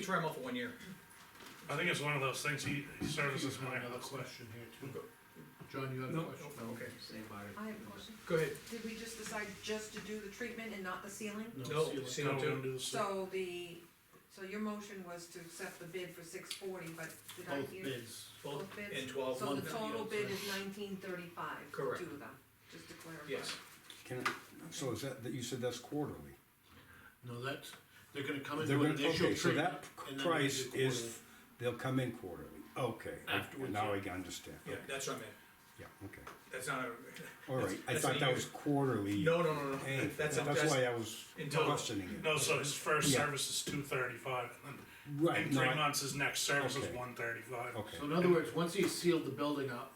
try him out for one year. I think it's one of those things, he he services my other Another question. question here too. Go- John, you have a No, question? no, okay. Same body. I have a question. Go ahead. Did we just decide just to do the treatment and not the sealing? No, seal it. seal it No, too. don't do the seal. So the, so your motion was to accept the bid for six forty, but did I Both hear? bids. Both Both bids? and twelve. So one the fifty. total bid is nineteen thirty-five, two Correct. of them, just to clarify. Yes, Can, I- so is that, that you said that's quarterly? No, that's, they're gonna come in They're do an gonna, initial okay, so treatment. that and then they price do is, they'll come in quarterly, okay, I- Afterwards, now I yeah. can understand, yeah, okay, that's what I meant. yeah, okay. That's not a, All right, I That's an thought that easy- was quarterly. no, no, no, no. Hey, That's, that's a- that's, why I was in total. questioning it. No, so his first Yeah. service is two thirty-five, and then Right, in no, three I- months, his next service is Okay. one thirty-five. okay, So in other words, once he's sealed the building up,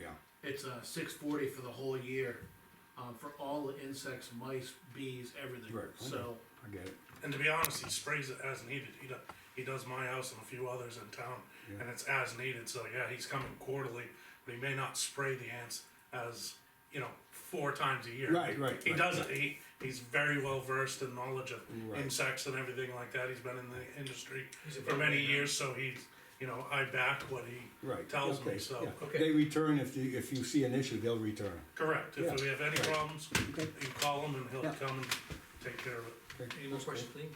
yeah, it's uh six forty for the whole year, um, for all the insects, mice, bees, everything. Right, okay. So, I get it, And to be honest, he sprays it as needed, he does, he does my house and a few others in town, Yeah. and it's as needed, so yeah, he's coming quarterly, but he may not spray the ants as, you know, four times a year. Right, right, He right, doesn't, he, he's very well versed in knowledge of Right. insects and everything like that, he's been in the industry He's a for many veteran, right? years, so he's, you know, I back what he right, tells okay, me, so. yeah. okay. They return if you, if you see an issue, they'll return, Correct, if Yeah, we have any right. problems, okay, you call him and he'll Yeah. come and take care of it. okay. any more that's cool. questions, Lean?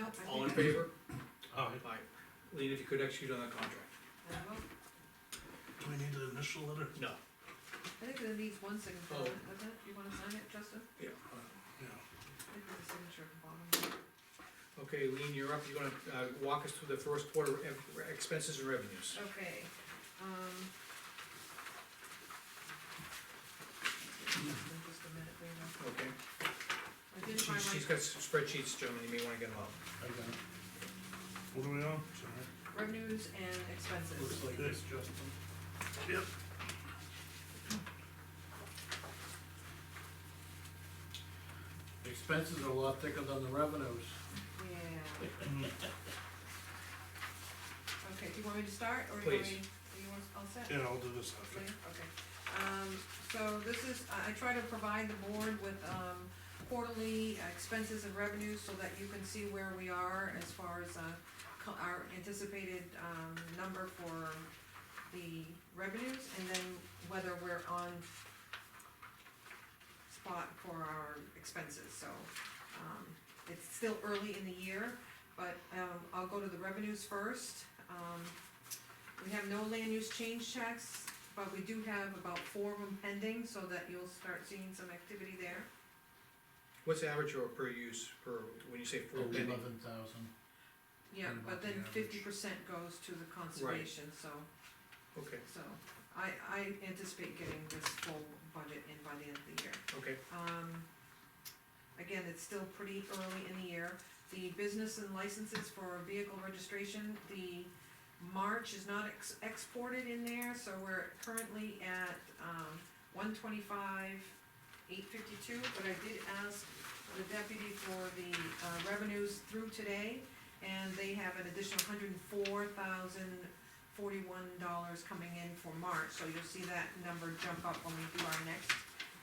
Nope, I think. All in I- favor? Aye. Aye. Lean, if you could execute on that contract? I will. Do we need an initial letter? No. I think it needs one signature, Oh. doesn't it? You wanna sign it, Justin? Yeah. Yeah. I think there's a signature at the bottom. Okay, Lean, you're up. You're gonna, uh, walk us through the first quarter ev- expenses and revenues. Okay, um. Just a minute, there you Okay, go. I did She- find my she's got spreadsheets, gentlemen, you may wanna get them out. I got it. What are we on? revenues and expenses. looks like this, Justin. Yep. The Expenses are a lot thicker than the revenues. Yeah. Okay, do you want me to start, or do you want Please. me, do you want, all set? Yeah, I'll do this after. Leah? Okay, um, so this is, I, I try to provide the board with, um, quarterly expenses and revenues so that you can see where we are as far as, uh, co- our anticipated, um, number for the revenues and then whether we're on spot for our expenses, so, um, it's still early in the year, but, um, I'll go to the revenues first. Um, we have no land use change checks, but we do have about four of them pending, so that you'll start seeing some activity there. What's the average or per use, per, when you say four pending? Eleven thousand. Yeah, And about but the then average. fifty percent goes to the conservation, so, Okay, so, I, I anticipate getting this full budget in by the end of the year. okay, Um, again, it's still pretty early in the year. The business and licenses for vehicle registration, the March is not ex- exported in there, so we're currently at, um, one twenty-five, eight fifty-two, but I did ask the deputy for the, uh, revenues through today, and they have an additional hundred and four thousand forty-one dollars coming in for March, so you'll see that number jump up when we do our next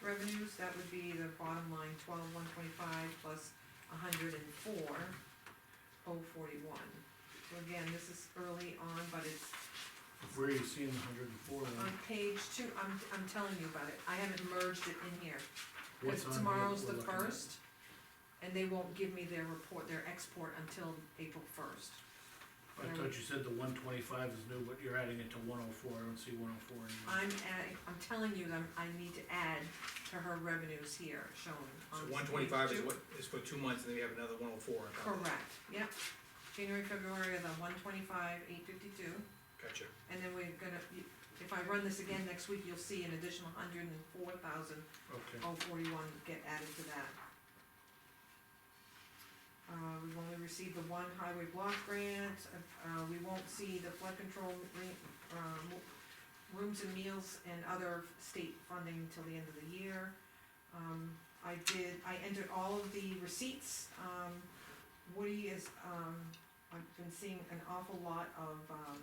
revenues, that would be the bottom line, twelve, one twenty-five plus a hundred and four, oh forty-one. So again, this is early on, but it's Where are you seeing the hundred and four? on page two, I'm, I'm telling you about it, I haven't merged it in here. What's Cause on here tomorrow's we're the looking at? first, and they won't give me their report, their export until April first. I thought you said the one twenty-five is new, but you're adding it to one oh four, I don't see one oh four anywhere. I'm adding, I'm telling you that I need to add to her revenues here, so shown on page Um, two. one twenty-five is what, is for two months, and then we have another one oh four. Correct, yep. January, February are the one twenty-five, eight fifty-two, Gotcha, and then we're gonna, if I run this again next week, you'll see an additional hundred and four thousand Okay, oh forty-one get added to that. Uh, we've only received the one highway block grant, uh, we won't see the flood control, re- um, rooms and meals and other state funding till the end of the year. Um, I did, I entered all of the receipts, um, Woody is, um, I've been seeing an awful lot of, um,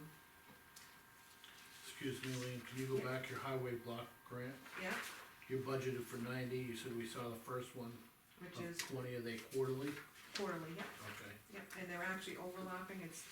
excuse me, Lean, can you go Yeah. back your highway block grant? yeah, You budgeted for ninety, you said we saw the first one which of is twenty, are they quarterly? quarterly, yeah, Okay. yeah. Yep, and they're actually overlapping, it's